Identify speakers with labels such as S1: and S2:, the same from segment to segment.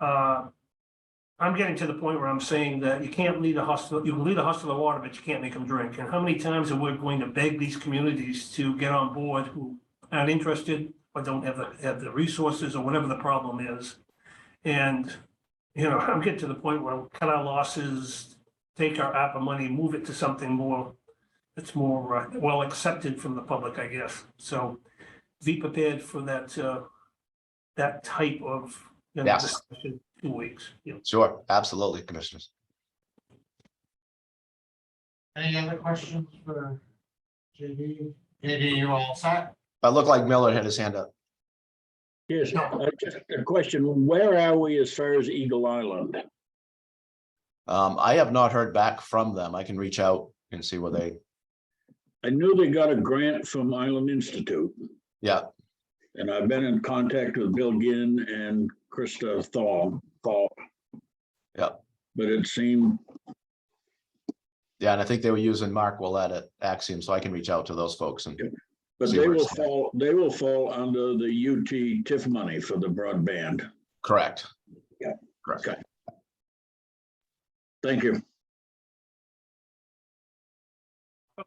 S1: uh, I'm getting to the point where I'm saying that you can't lead a hostile, you can lead a hostile to water, but you can't make them drink. And how many times are we going to beg these communities to get on board who aren't interested or don't have the, have the resources or whatever the problem is? And, you know, I'm getting to the point where cut our losses, take our ARPA money, move it to something more, that's more uh, well accepted from the public, I guess. So be prepared for that, uh, that type of, you know,
S2: Yes.
S1: discussion, two weeks, you know.
S2: Sure, absolutely, commissioners.
S3: Any other questions for JD? JD, you all set?
S2: I look like Miller had his hand up.
S4: Yes,
S3: No.
S4: uh, just a question. Where are we as far as Eagle Island?
S2: Um, I have not heard back from them. I can reach out and see what they,
S4: I knew they got a grant from Island Institute.
S2: Yeah.
S4: And I've been in contact with Bill Ginn and Krista Thal, Thal.
S2: Yeah.
S4: But it seemed,
S2: yeah, and I think they were using Mark Willett at Axiom, so I can reach out to those folks and,
S4: but
S2: See
S4: they
S2: where
S4: will
S2: it's at.
S4: fall, they will fall under the UT TIF money for the broadband.
S2: correct.
S4: Yeah.
S2: Correct.
S4: Okay. Thank you.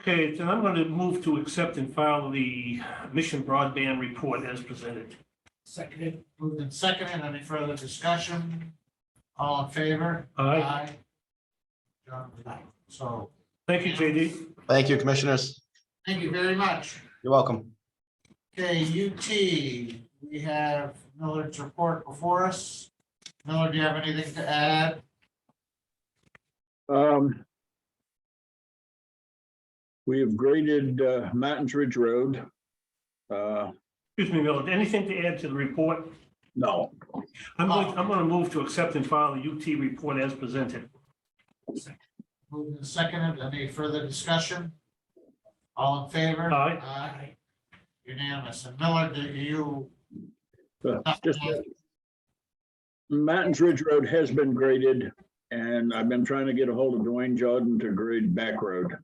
S1: Okay, then I'm going to move to accept and file the Mission Broadband Report as presented.
S3: Seconded, moved and seconded. Any further discussion? All in favor?
S1: Aye,
S3: John, aye. So,
S1: thank you, JD.
S2: Thank you, commissioners.
S3: thank you very much.
S2: You're welcome.
S3: Okay, UT, we have Miller's report before us. Miller, do you have anything to add?
S4: Um. We have graded uh, Martins Ridge Road. Uh,
S1: Excuse me, Miller, anything to add to the report?
S4: no,
S1: I'm going, I'm going to move to accept and file the UT report as presented.
S3: Moved and seconded. Any further discussion? All in favor?
S1: Aye.
S3: Aye. Unanimous. And Miller, do you?
S4: but just. Martins Ridge Road has been graded and I've been trying to get a hold of Dwayne Jordan to grade back road.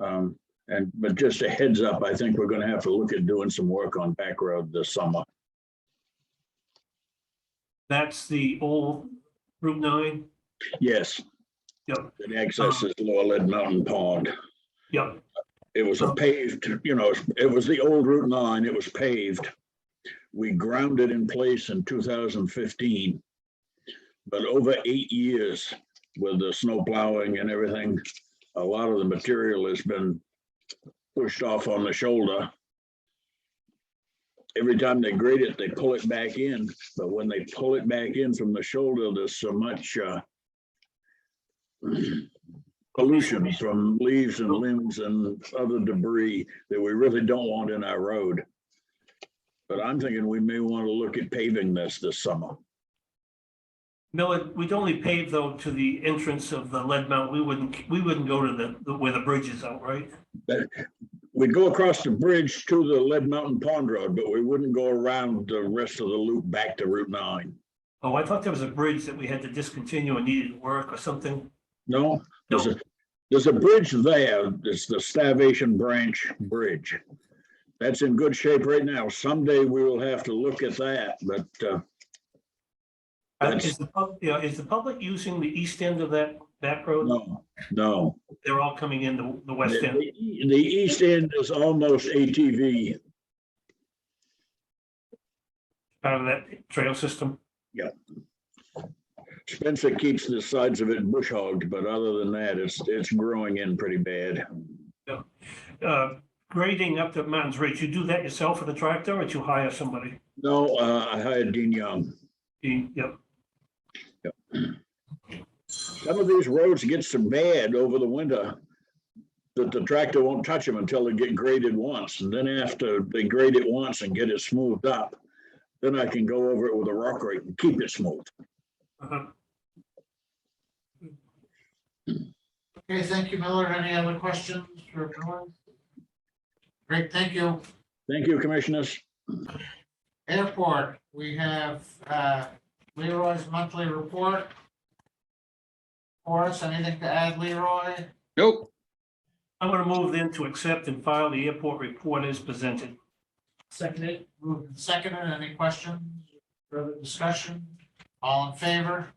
S4: Um, and, but just a heads up, I think we're gonna have to look at doing some work on back road this summer.
S1: That's the old Route nine.
S4: Yes.
S1: Yep.
S4: It accesses Lower Lead Mountain Pond.
S1: Yep,
S4: It was a paved, you know, it was the old Route nine, it was paved. We ground it in place in two thousand fifteen. But over eight years with the snow plowing and everything, a lot of the material has been pushed off on the shoulder. Every time they grade it, they pull it back in, but when they pull it back in from the shoulder, there's so much, uh, pollution from leaves and limbs and other debris that we really don't want in our road. But I'm thinking we may want to look at paving this this summer.
S1: Miller, we'd only pave though to the entrance of the lead mount. We wouldn't, we wouldn't go to the- the, where the bridge is out, right?
S4: We'd go across the bridge to the Lead Mountain Pond Road, but we wouldn't go around the rest of the loop back to Route nine.
S1: Oh, I thought there was a bridge that we had to discontinue and needed work or something.
S4: No, there's a, there's a bridge there. It's the Starvation Branch Bridge. That's in good shape right now. Someday we will have to look at that, but, uh,
S1: Uh,
S4: That's-
S1: Is the, pub- yeah, is the public using the east end of that back road?
S4: no, no.
S1: They're all coming in the, the west
S4: The E,
S1: end.
S4: the- the east end is almost ATV.
S1: out of that trail system.
S4: Spencer keeps the sides of it bush hogged, but other than that, it's, it's growing in pretty bad.
S1: Uh, Grading up the Mountains Ridge, you do that yourself with a tractor or do you hire somebody?
S4: No, uh, I hired Dean Young.
S1: You- Yep,
S4: Some of these roads get so bad over the winter that the tractor won't touch them until they get graded once. And then after they grade it once and get it smoothed up, then I can go over it with a rock rake and keep it smooth.
S1: uh-huh.
S3: Okay, thank you, Miller. Any other questions for Miller? Great, thank you.
S4: Thank you, commissioners.
S3: Airport, we have uh, Leroy's monthly report. For us, anything to add, Leroy?
S5: Nope,
S1: I'm going to move then to accept and file the airport report as presented.
S3: Seconded. Moved and seconded. Any questions? Further discussion? All in favor?